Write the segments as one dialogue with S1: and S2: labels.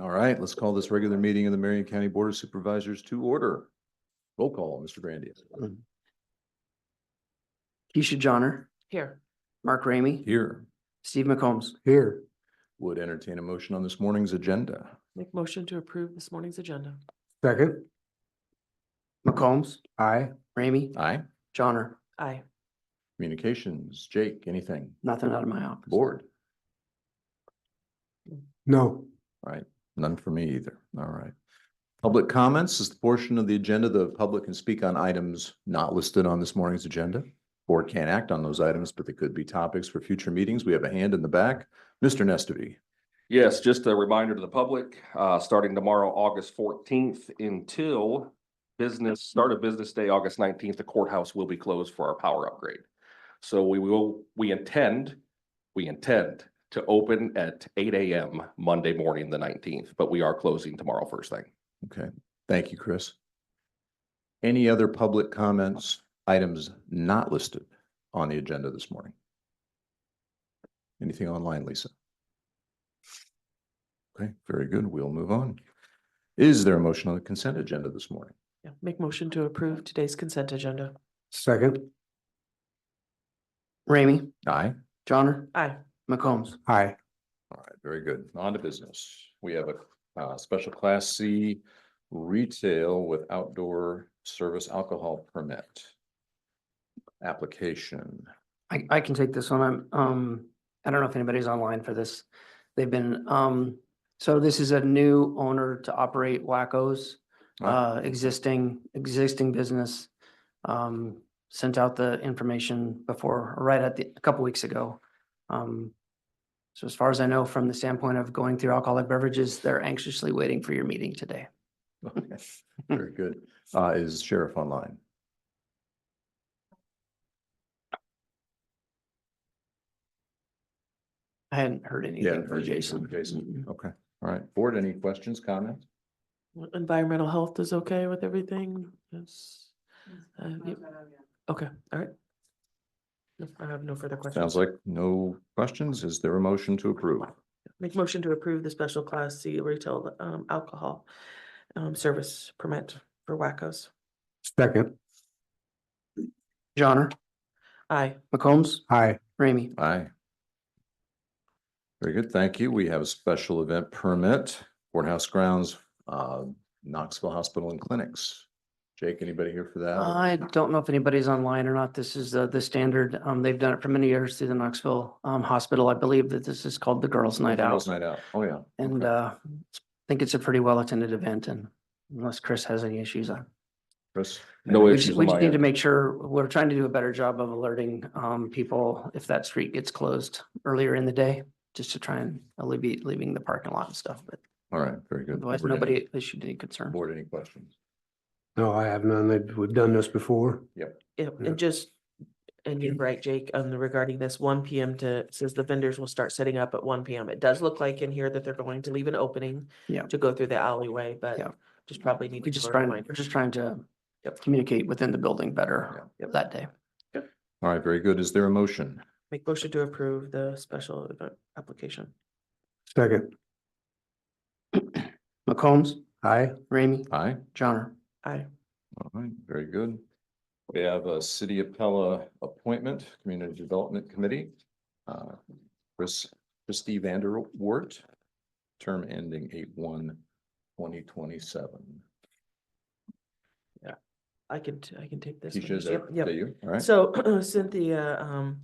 S1: All right, let's call this regular meeting of the Marion County Board of Supervisors to order. Roll call, Mr. Grandia.
S2: Keisha Johnner,
S3: Here.
S2: Mark Ramey,
S1: Here
S2: Steve McCombs.
S4: Here,
S1: would entertain a motion on this morning's agenda.
S3: Make motion to approve this morning's agenda.
S4: second,
S2: McCombs,
S4: aye,
S2: Ramey,
S1: Aye.
S2: Johnner,
S3: Aye.
S1: Communications, Jake, anything?
S2: nothing out of my office.
S1: Board?
S4: no,
S1: None for me either. All right. Public comments is the portion of the agenda the public can speak on items not listed on this morning's agenda. Board can't act on those items, but they could be topics for future meetings. We have a hand in the back. Mr. Nestudy.
S5: Yes, just a reminder to the public, uh, starting tomorrow, August fourteenth until business, start of business day, August nineteenth, the courthouse will be closed for our power upgrade. So we will, we intend, we intend to open at eight AM Monday morning, the nineteenth, but we are closing tomorrow first thing.
S1: Okay, thank you, Chris. Any other public comments, items not listed on the agenda this morning? Anything online, Lisa? Okay, very good. We'll move on. Is there a motion on the consent agenda this morning?
S3: Yeah, make motion to approve today's consent agenda.
S4: second,
S2: Ramey,
S1: Aye.
S2: Johnner,
S3: Aye.
S2: McCombs.
S4: aye,
S1: All right, very good. On to business. We have a uh, special class C retail with outdoor service alcohol permit application.
S2: I, I can take this one. I'm, um, I don't know if anybody's online for this. They've been, um, so this is a new owner to operate Wacko's.
S1: Ah.
S2: Uh, existing, existing business. Um, sent out the information before, right at the, a couple weeks ago. Um, so as far as I know, from the standpoint of going through alcoholic beverages, they're anxiously waiting for your meeting today.
S1: Okay, Very good. Uh, is sheriff online?
S2: I hadn't heard anything from
S1: heard anything
S2: Jason.
S1: from Jason.
S2: Mm-mm.
S1: Okay, all right. Board, any questions, comments?
S3: Environmental health is okay with everything? Yes. Uh, yep. Okay, all right. No, I have no further questions.
S1: Sounds like no questions. Is there a motion to approve?
S3: Make motion to approve the special class C retail um alcohol um service permit for Wackos.
S4: second,
S2: Johnner,
S3: Aye.
S2: McCombs,
S4: aye,
S2: Ramey.
S1: Aye. Very good, thank you. We have a special event permit, courthouse grounds, uh, Knoxville Hospital and Clinics. Jake, anybody here for that? or-
S2: I don't know if anybody's online or not. This is uh, the standard. Um, They've done it for many years through the Knoxville um, Hospital. I believe that this is called the Girls Night Out.
S1: Girls' Night out, oh, yeah.
S2: And
S1: Okay.
S2: uh, I think it's a pretty well-attended event and unless Chris has any issues on.
S1: Chris?
S5: No
S2: We
S5: issues
S2: just
S5: on
S2: we just
S5: my
S2: need to
S5: end.
S2: make sure, we're trying to do a better job of alerting um, people if that street gets closed earlier in the day, just to try and alleviate leaving the parking lot and stuff, but
S1: All right, very good.
S2: otherwise
S1: Board, any-
S2: nobody issued any concern.
S1: Board, any questions?
S4: no, I have none, They- we've done this before,
S3: Yeah,
S4: Yeah.
S3: and just, and you're right, Jake, on the regarding this one PM to, it says the vendors will start setting up at one PM. It does look like in here that they're going to leave an opening.
S2: Yeah.
S3: To go through the alleyway,
S2: Yeah.
S3: but just probably need.
S2: We're
S3: to
S2: just
S3: blur
S2: trying,
S3: line.
S2: we're just trying to
S3: Yep.
S2: communicate within the building better
S3: Yep.
S2: that day.
S1: All right, very good. Is there a motion?
S3: Make motion to approve the special event application.
S4: second,
S2: McCombs,
S4: aye,
S2: Ramey,
S1: Aye?
S2: Johnner.
S3: Aye.
S1: All right, very good. We have a City of Pella appointment, Community Development Committee. Uh, Chris, Christie Vanderwart, term ending eight one twenty twenty-seven.
S3: I can, t- I can take this. one.
S1: Keisha, is that
S3: Yep, yep.
S1: that you? All right.
S3: So Cynthia um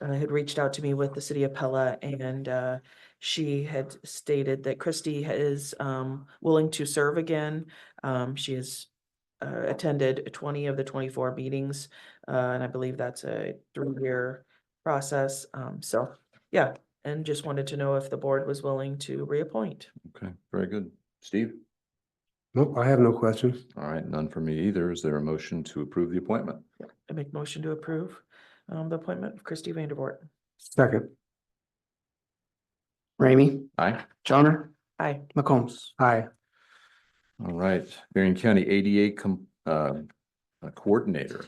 S3: uh, had reached out to me with the city of Pella and uh she had stated that Christy is um willing to serve again. Um, she has uh attended twenty of the twenty-four meetings, uh, and I believe that's a three-year process. Um, so, yeah, and just wanted to know if the board was willing to reappoint.
S1: Okay, very good. Steve?
S4: nope, I have no questions,
S1: All right, none for me either. Is there a motion to approve the appointment?
S3: I make motion to approve um the appointment of Christy Vanderborn.
S4: second,
S2: Ramey,
S1: Aye.
S2: Johnner,
S3: Aye.
S2: McCombs.
S4: aye,
S1: All right, Marion County ADA com- uh, uh, Coordinator.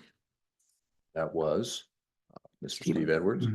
S1: That was uh, Mr.
S2: Steve.
S1: Steve Edwards.